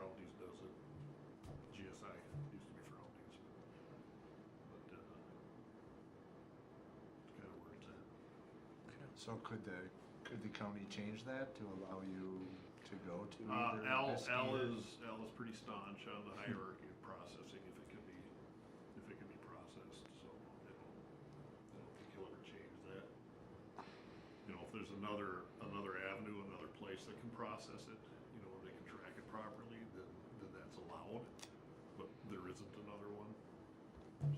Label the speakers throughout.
Speaker 1: uh,
Speaker 2: So could the, could the county change that to allow you to go to
Speaker 1: Uh,
Speaker 2: either?
Speaker 1: L,
Speaker 2: Biscayne
Speaker 1: L
Speaker 2: or-
Speaker 1: is, L is pretty staunch on the hierarchy of processing if it can be, if it can be processed, so I don't, I don't think he'll ever change that. You know, if there's another, another avenue, another place that can process it, you know, and they can track it properly, then, then that's allowed, but there isn't another one,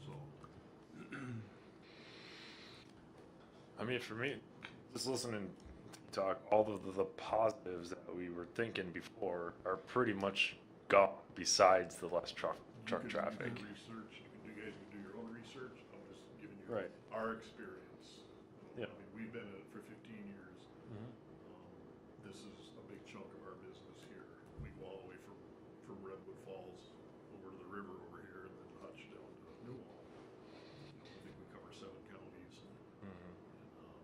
Speaker 1: so.
Speaker 3: I mean, for me, just listening to talk, all of the, the positives that we were thinking before are pretty much gone. Besides the less truck
Speaker 1: you
Speaker 3: truck
Speaker 1: could- you could
Speaker 3: traffic,
Speaker 1: Research, you can, you guys can do your own research, I'm just giving you.
Speaker 3: Right.
Speaker 1: Our experience.
Speaker 3: Yeah.
Speaker 1: I mean, we've been at it for fifteen years. Um, This is a big chunk of our business here. We go all the way from, from Redwood Falls over to the river over here and then Hutch down to Newell. I think we cover seven counties.
Speaker 3: Mhm.
Speaker 1: and, um,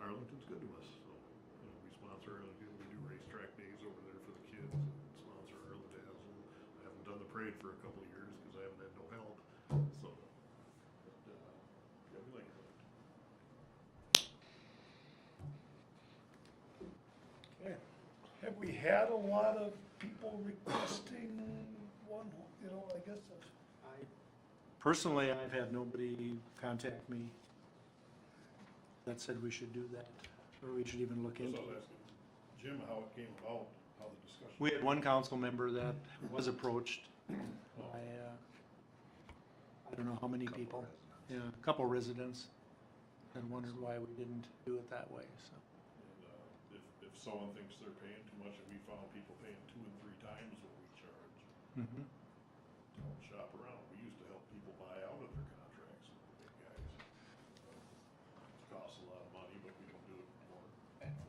Speaker 1: Arlington's good to us, so, you know, we sponsor Arlington, we do racetrack days over there for the kids, and sponsor Arlington. and I haven't done the parade for a couple of years because I haven't had no help, so. but, uh, Yeah, we like Arlington.
Speaker 4: Okay. Have we had a lot of people requesting one, you know, I guess, uh,
Speaker 5: I, personally, I've had nobody contact me that said we should do that, or we should even look
Speaker 1: So I
Speaker 5: into
Speaker 1: was
Speaker 5: it.
Speaker 1: asking Jim how it came about, how the discussion.
Speaker 5: We had one council member that was approached by, uh, I don't know how many
Speaker 2: couple
Speaker 5: people,
Speaker 2: residents.
Speaker 5: yeah, a couple residents, and wondered why we didn't do it that way, so.
Speaker 1: And, uh, If, if someone thinks they're paying too much, and we found people paying two and three times what we charge,
Speaker 2: Mm-hmm.
Speaker 5: mhm.
Speaker 1: don't shop around. We used to help people buy out of their contracts, big guys. Uh, It Costs a lot of money, but we don't do it anymore.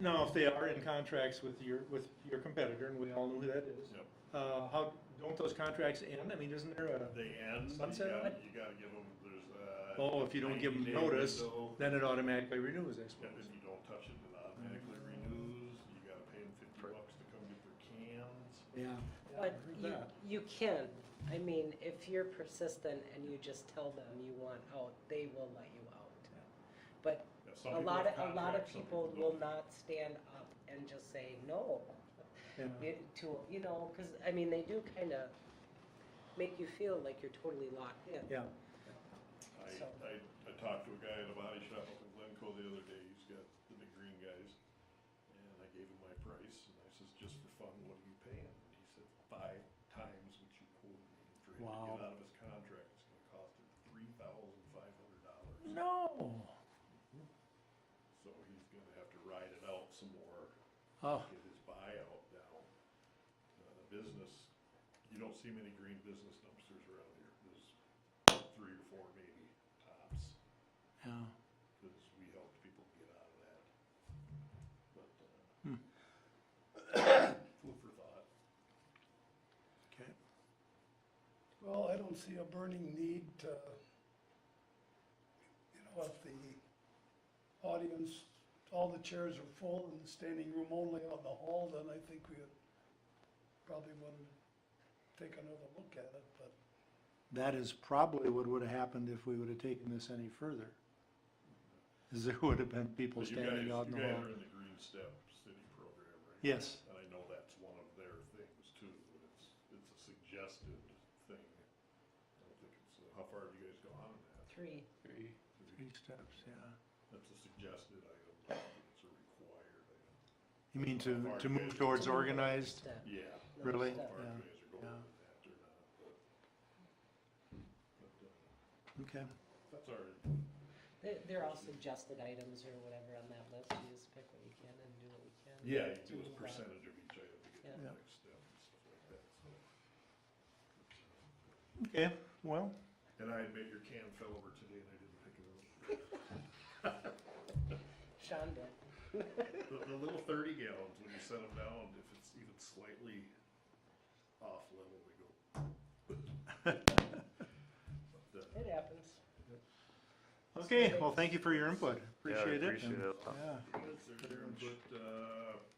Speaker 5: Now, if they are in contracts with your, with your competitor, and we all know who that is,
Speaker 1: Yep.
Speaker 5: uh, how, don't those contracts end? I mean, isn't there a?
Speaker 1: They end, you
Speaker 5: Sunset
Speaker 1: gotta,
Speaker 5: Line?
Speaker 1: you gotta give them, there's a.
Speaker 5: Oh, if you don't give them
Speaker 1: 90 day
Speaker 5: notice,
Speaker 1: window.
Speaker 5: then it automatically renews,
Speaker 1: And
Speaker 5: I
Speaker 1: if
Speaker 5: suppose.
Speaker 1: you don't touch it, it automatically
Speaker 6: Mm.
Speaker 1: renews. You gotta pay them fifty bucks to come get their cans.
Speaker 5: Yeah.
Speaker 6: But you, you can, I mean, if you're persistent and you just tell them you want out, they will let you out. But
Speaker 1: Yeah, some
Speaker 6: a
Speaker 1: people
Speaker 6: lot
Speaker 1: have
Speaker 6: of, a lot of
Speaker 1: contracts, some
Speaker 6: people
Speaker 1: don't.
Speaker 6: will not stand up and just say no. You- To, you know, cause I mean, they do kinda make you feel like you're totally locked in.
Speaker 5: Yeah,
Speaker 1: I,
Speaker 6: So-
Speaker 1: I, I talked to a guy at a body shop up in Glencoe the other day, he's got the big green guys, and I gave him my price, and I says, just for fun, what are you paying? And he said, five times what you quoted me, And for him to
Speaker 5: Wow.
Speaker 1: get out of his contract, it's gonna cost him three thousand five hundred dollars.
Speaker 5: no.
Speaker 1: So he's gonna have to ride it out some more,
Speaker 5: Oh,
Speaker 1: get his buyout down. Uh, the business, you don't see many green business dumpsters around here, there's three or four maybe tops.
Speaker 5: yeah.
Speaker 1: because we helped people get out of that. But, uh,
Speaker 5: Hmm.
Speaker 1: food for thought.
Speaker 5: Okay.
Speaker 4: well, I don't see a burning need to, you know, if the audience, all the chairs are full and the standing room only on the hall, then I think we would probably want to take another look at it, but
Speaker 5: That is probably what would have happened if we would have taken this any further. Is there would have been people
Speaker 1: But you
Speaker 5: standing
Speaker 1: guys-
Speaker 5: out in the
Speaker 1: You guys
Speaker 5: hall.
Speaker 1: are in the Green Step City program, right?
Speaker 5: Yes,
Speaker 1: And I know that's one of their things too, but it's, it's a suggested thing. I don't think it's, uh, how far have you guys gone in that?
Speaker 6: Three,
Speaker 5: three steps, yeah.
Speaker 1: That's a suggested item, I don't think it's a required item.
Speaker 5: You mean to, to move towards organized?
Speaker 6: step,
Speaker 1: Yeah.
Speaker 6: another
Speaker 5: Really?
Speaker 1: How
Speaker 6: step.
Speaker 1: far
Speaker 5: Yeah,
Speaker 1: you guys are going
Speaker 5: yeah.
Speaker 1: with that or not, but. but, uh,
Speaker 5: Okay.
Speaker 1: That's our,
Speaker 6: They, they're all suggested items or whatever on that list, you just pick what you can and do what you can.
Speaker 1: Yeah, you do a
Speaker 6: to move on.
Speaker 1: percentage of each item to get to
Speaker 5: Yeah.
Speaker 1: the next step and stuff like that, so.
Speaker 5: Okay, well,
Speaker 1: And I admit your can fell over today and I didn't pick it up.
Speaker 6: Sean did.
Speaker 1: The, the little thirty gallons, when you set them down, if it's even slightly off level, they go. uh, But, uh,
Speaker 6: It happens.
Speaker 5: okay, well, thank you for your input.
Speaker 3: Yeah, I
Speaker 5: Appreciate it.
Speaker 3: Appreciate
Speaker 5: and-
Speaker 3: it.
Speaker 5: Yeah.
Speaker 1: there's their input, uh,